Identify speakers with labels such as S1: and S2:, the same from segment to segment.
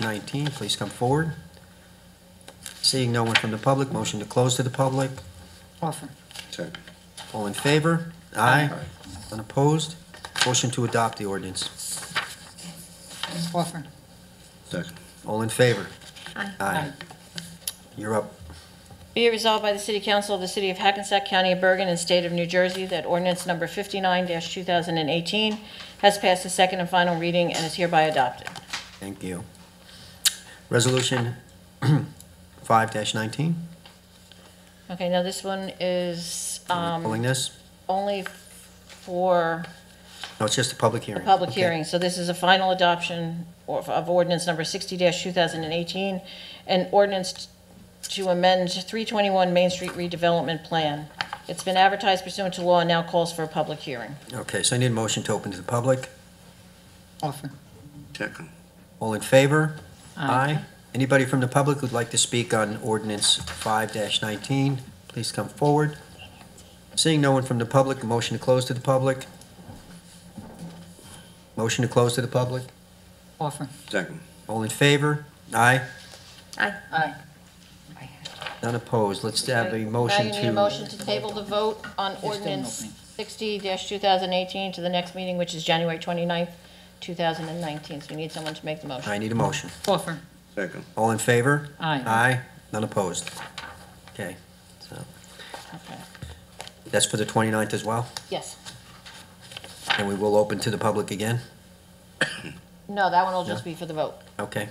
S1: nineteen, please come forward. Seeing no one from the public, motion to close to the public.
S2: Offer.
S3: Second.
S1: All in favor? Aye. Unopposed? Motion to adopt the ordinance.
S2: Offer.
S3: Second.
S1: All in favor?
S4: Aye.
S1: You're up.
S4: Be it resolved by the City Council of the City of Hackensack County of Bergen and State of New Jersey that ordinance number 59-2018 has passed the second and final reading and is hereby adopted.
S1: Thank you. Resolution five nineteen,
S4: Okay, now this one is
S1: pulling
S4: um,
S1: this?
S4: only for
S1: No, it's just a public
S4: the
S1: hearing.
S4: public
S1: Okay.
S4: hearing, so this is a final adoption of of ordinance number 60-2018, an ordinance to amend 321 Main Street redevelopment plan. It's been advertised pursuant to law and now calls for a public hearing.
S1: Okay, so I need a motion to open to the public.
S2: Offer.
S3: Second.
S1: All in favor?
S2: Aye.
S1: Anybody from the public who'd like to speak on ordinance five nineteen, please come forward. Seeing no one from the public, a motion to close to the public? Motion to close to the public?
S2: Offer.
S3: Second.
S1: All in favor? Aye.
S2: Aye.
S1: None opposed. Let's have a
S4: Now
S1: motion
S4: you need a
S1: to,
S4: motion to table the vote on
S2: still an
S4: ordinance
S2: opening.
S4: 60-2018 to the next meeting, which is January 29th, 2019. So we need someone to make the motion.
S1: I need a motion.
S2: Offer.
S3: Second.
S1: All in favor?
S2: Aye.
S1: Aye. None opposed. Okay, so
S4: Okay.
S1: that's for the 29th as well,
S4: Yes.
S1: and we will open to the public again?
S4: No, that one will just
S1: No.
S4: be for the vote.
S1: Okay.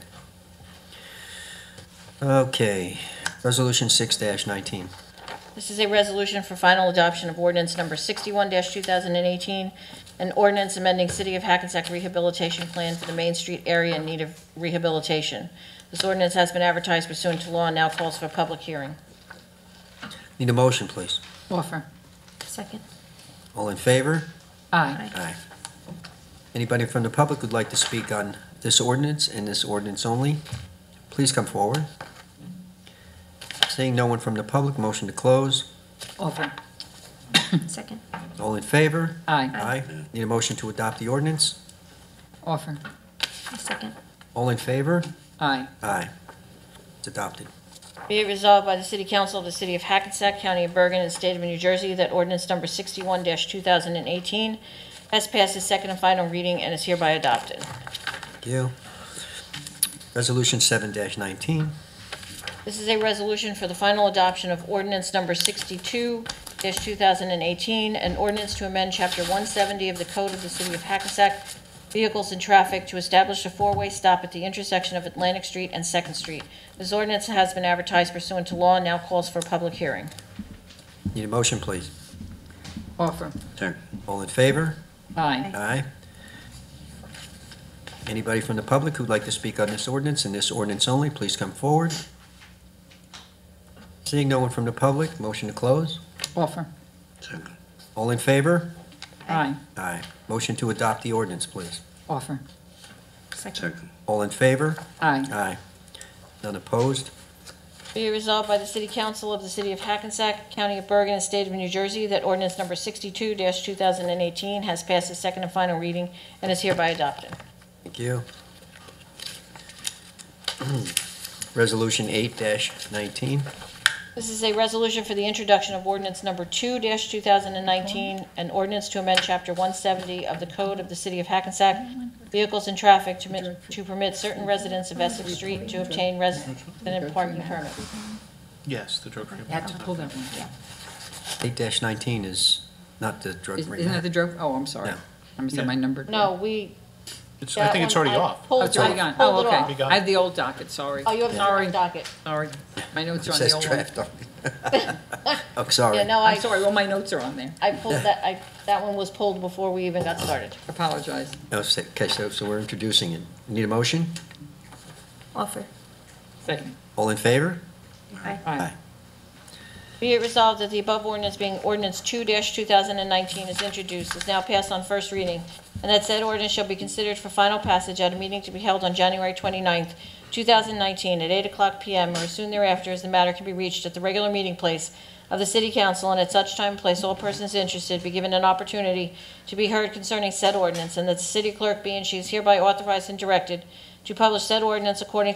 S1: Okay, resolution six nineteen.
S4: This is a resolution for final adoption of ordinance number 61-2018, an ordinance amending City of Hackensack Rehabilitation Plan for the Main Street area in need of rehabilitation. This ordinance has been advertised pursuant to law and now calls for a public hearing.
S1: Need a motion, please.
S2: Offer.
S4: Second.
S1: All in favor?
S2: Aye.
S1: Aye. Anybody from the public who'd like to speak on this ordinance and this ordinance only, please come forward. Seeing no one from the public, motion to close.
S2: Offer.
S4: Second.
S1: All in favor?
S2: Aye.
S1: Aye. Need a motion to adopt the ordinance?
S2: Offer.
S4: Second.
S1: All in favor?
S2: Aye.
S1: Aye. It's adopted.
S4: Be it resolved by the City Council of the City of Hackensack, County of Bergen, and State of New Jersey that ordinance number 61-2018 has passed its second and final reading and is hereby adopted.
S1: Thank you. Resolution seven nineteen.
S4: This is a resolution for the final adoption of ordinance number 62-2018, an ordinance to amend Chapter 170 of the Code of the City of Hackensack, Vehicles and Traffic, to establish a four-way stop at the intersection of Atlantic Street and Second Street. This ordinance has been advertised pursuant to law and now calls for a public hearing.
S1: Need a motion, please.
S2: Offer.
S3: Second.
S1: All in favor?
S2: Aye.
S1: Aye. Anybody from the public who'd like to speak on this ordinance and this ordinance only, please come forward. Seeing no one from the public, motion to close.
S2: Offer.
S3: Second.
S1: All in favor?
S2: Aye.
S1: Aye. Motion to adopt the ordinance, please.
S2: Offer.
S3: Second.
S1: All in favor?
S2: Aye.
S1: Aye. None opposed?
S4: Be it resolved by the City Council of the City of Hackensack, County of Bergen, and State of New Jersey that ordinance number 62-2018 has passed its second and final reading and is hereby adopted.
S1: Thank you. Resolution eight nineteen.
S4: This is a resolution for the introduction of ordinance number 2-2019, an ordinance to amend Chapter 170 of the Code of the City of Hackensack, Vehicles and Traffic, to mi- to permit certain residents of Essex Street to obtain resident parking permits.
S5: Yes, the drug-free.
S2: Had to pull that one.
S1: Eight nineteen is not the drug
S2: Is-
S1: free.
S2: Isn't that the drug? Oh, I'm sorry.
S1: No.
S2: I missed my
S5: Yeah.
S2: number.
S4: No, we...
S5: It's, I think it's already
S4: that one- Um, I
S5: off.
S2: Oh,
S4: pulled
S2: it's
S4: it-
S2: already gone.
S4: pulled
S2: Oh,
S4: it
S2: okay.
S5: We got
S2: I
S5: it.
S2: had the old docket, sorry.
S4: Oh, you have the wrong docket.
S2: Sorry. My notes are on the
S1: Says
S2: old one.
S1: draft. on it. Oh, sorry.
S4: Yeah, no,
S2: I'm
S4: I
S2: sorry, all my notes are on there.
S4: I pulled that, I that one was pulled before we even got started.
S2: Apologize.
S1: No, so- Okay, so, so we're introducing it. Need a motion?
S6: Offer.
S2: Second.
S1: All in favor?
S2: Aye.
S4: Be it resolved that the above ordinance being ordinance 2-2019 is introduced, is now passed on first reading, and that said ordinance shall be considered for final passage at a meeting to be held on January 29th, 2019, at 8:00 PM or as soon thereafter, as the matter can be reached at the regular meeting place of the City Council, and at such time and place, all persons interested be given an opportunity to be heard concerning said ordinance, and that the city clerk be and she is hereby authorized and directed to publish said ordinance according to